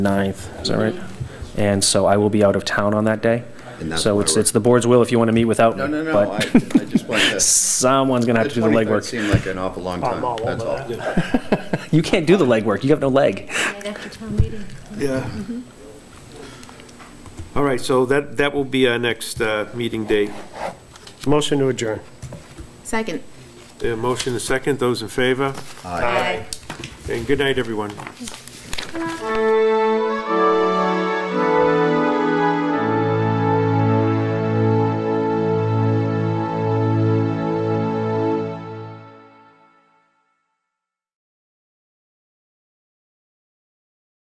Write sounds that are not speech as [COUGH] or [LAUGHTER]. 9th, is that right? And so I will be out of town on that day. And that's So why it's, we're- it's the board's will if you want to meet without me. No, no, no, I, I but just [LAUGHS] want to. Someone's going to have to do the It [LAUGHS] legwork. seemed like an awful long time, I'm all that's all. over that. You can't do the legwork, you have no leg. Right after town meeting. Yeah. Mm-hmm. All right, so that, that will be our next uh, meeting date. Motion to adjourn. Second. Uh, Motion is second, those in favor? Aye. And good night, everyone.